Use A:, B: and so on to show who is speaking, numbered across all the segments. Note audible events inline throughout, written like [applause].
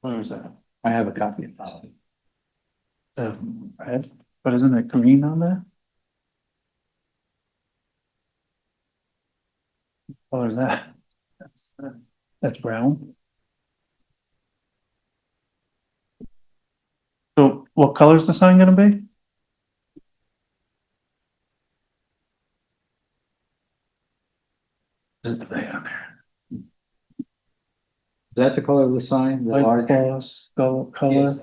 A: Where is that? I have a copy of that. The red, but isn't it green on there? What is that? That's, uh, That's brown. So what color is the sign gonna be? Is it there on there?
B: Is that the color of the sign? The
A: Light
B: large?
A: colors, go color,
B: Yes.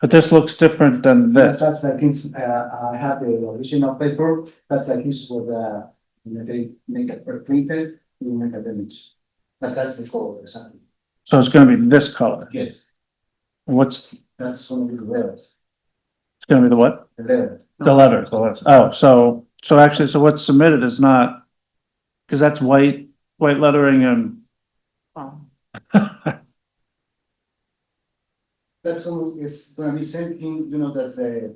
A: but this looks different than
C: That-
A: this.
C: That's, I think, uh, I have the original paper, that's I think for the, when they make it printed, you make a image. But that's the color, something.
A: So it's gonna be this color.
C: Yes.
A: What's, it's
C: That's one of the letters,
A: gonna be the what?
C: the letter.
A: The letters, the letters. Oh, so, so actually, so what's submitted is not, because that's white, white lettering and.
C: That's all is gonna be same thing, you know, that's the,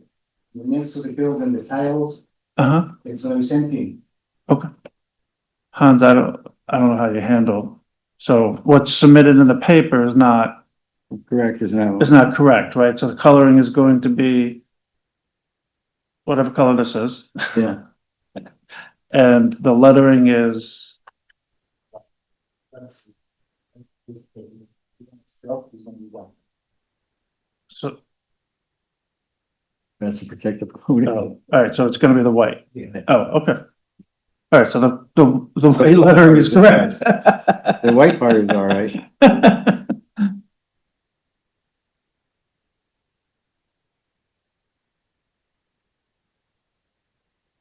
C: next to the building, the tiles,
A: Uh-huh.
C: it's gonna be same thing.
A: Hans, I don't, I don't know how you handle. So what's submitted in the paper is not,
B: Correct, is now.
A: is not correct, right? So the coloring is going to be whatever color this is,
B: Yeah.
A: and the lettering is
C: That's- That's
A: So,
B: That's a protective.
A: oh, all right, so it's gonna be the white?
C: Yeah.
A: Oh, okay. All right, so the, the, the white lettering is correct. [laughs]
B: The white part is all right.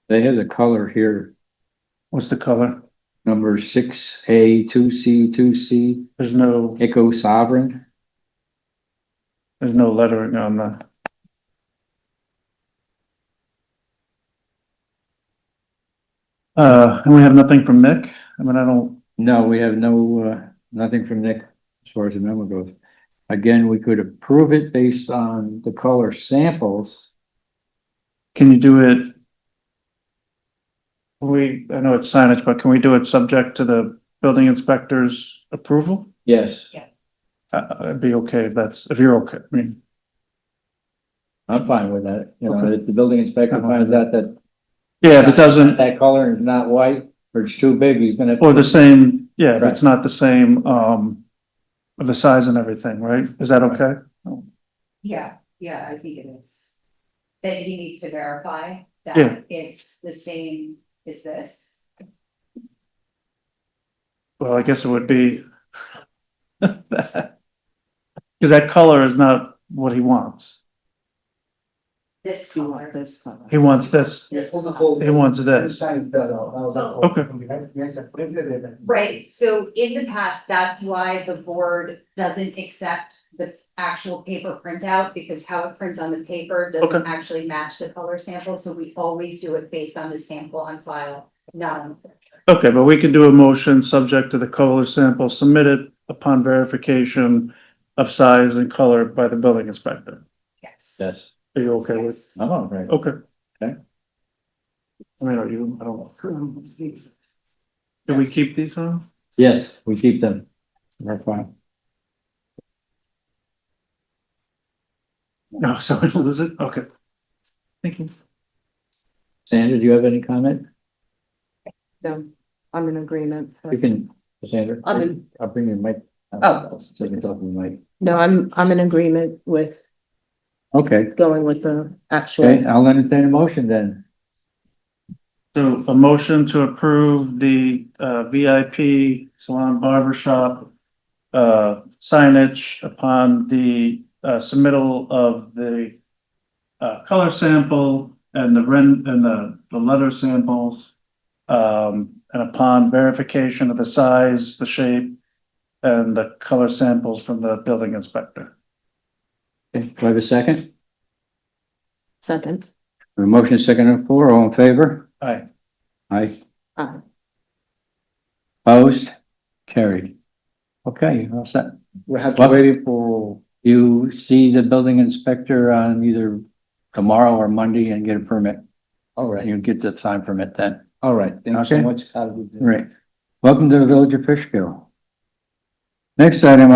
B: They have the color here,
A: What's the color?
B: number six A, two C, two C,
A: There's no,
B: Echo Sovereign.
A: there's no lettering on the, uh, and we have nothing from Nick? I mean, I don't,
B: No, we have no, uh, nothing from Nick as far as the memo goes. Again, we could approve it based on the color samples.
A: can you do it? We, I know it's signage, but can we do it subject to the building inspector's approval?
B: Yes.
A: Uh, I'd be okay, if that's, if you're okay, I mean,
B: I'm fine with that. You know, if the building inspector finds out that
A: yeah, if it doesn't,
B: that color is not white or it's too big, he's gonna.
A: or the same, yeah, if it's not the same, um, of the size and everything, right? Is that okay?
D: Yeah, yeah, I think it is. That he needs to verify
A: Yeah.
D: that it's the same as this.
A: Well, I guess it would be. Cause that color is not what he wants.
D: This color. This color.
A: He wants this, he wants this. Okay.
C: Okay.
D: Right, so in the past, that's why the board doesn't accept the actual paper printout, because how it prints on the paper doesn't actually match the color sample, so we always do it based on the sample on file, not on. the picture.
A: Okay, but we can do a motion subject to the color sample submitted upon verification of size and color by the building inspector.
D: Yes.
B: Yes,
A: Are you okay with?
D: Yes.
B: I'm all right.
A: Okay.
B: Okay.
A: I mean, are you, I don't. Do we keep these on?
B: Yes, we keep them. We're fine.
A: No, [laughs] so we lose it? Okay. Thank you.
B: Sandra, do you have any comment?
E: No, I'm in agreement.
B: You can, Sandra.
E: I'm in-
B: I'll bring your mic.
E: Oh.
B: So you can talk to the mic.
E: No, I'm, I'm in agreement with
B: Okay,
E: going with the
B: okay,
E: actual.
B: I'll entertain a motion then.
A: So a motion to approve the uh VIP salon barber shop uh signage upon the uh submittal of the uh color sample and the rent and the the letter samples. Um, and upon verification of the size, the shape and the color samples from the building inspector.
B: Okay, Do I have a second?
E: Second,
B: A motion is second and four, all in favor?
A: Aye.
B: Aye.
E: Aye.
B: Opposed? Carried. Okay, all set.
C: We have
B: Well, waiting for you see the building inspector on either tomorrow or Monday and get a permit.
C: All
B: And
C: right,
B: you'll get the sign permit then.
C: all right. Thank you so
B: Okay.
C: much. Have a good day.
B: Right. Welcome to the village of Fishkill. Next item